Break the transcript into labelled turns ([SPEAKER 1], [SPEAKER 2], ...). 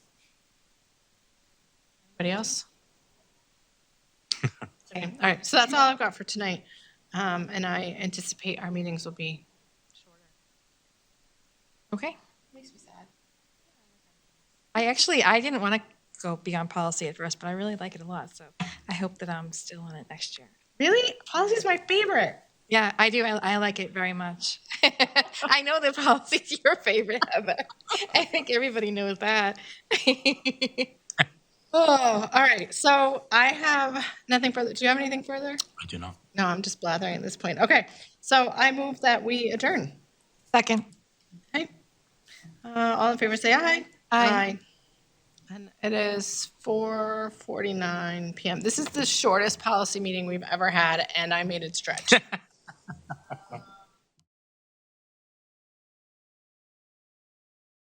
[SPEAKER 1] Anybody else? Okay, all right, so that's all I've got for tonight. Um, and I anticipate our meetings will be shorter. Okay.
[SPEAKER 2] Makes me sad.
[SPEAKER 3] I actually, I didn't want to go beyond policy at first, but I really like it a lot, so I hope that I'm still on it next year.
[SPEAKER 1] Really? Policy is my favorite.
[SPEAKER 3] Yeah, I do. I, I like it very much. I know that policy's your favorite, Heather. I think everybody knows that.
[SPEAKER 1] Oh, all right. So I have nothing further. Do you have anything further?
[SPEAKER 4] I do not.
[SPEAKER 1] No, I'm just blathering at this point. Okay. So I move that we adjourn.
[SPEAKER 3] Second.
[SPEAKER 1] Okay. Uh, all in favor, say aye.
[SPEAKER 3] Aye.
[SPEAKER 1] And it is 4:49 p.m. This is the shortest policy meeting we've ever had, and I made it stretch.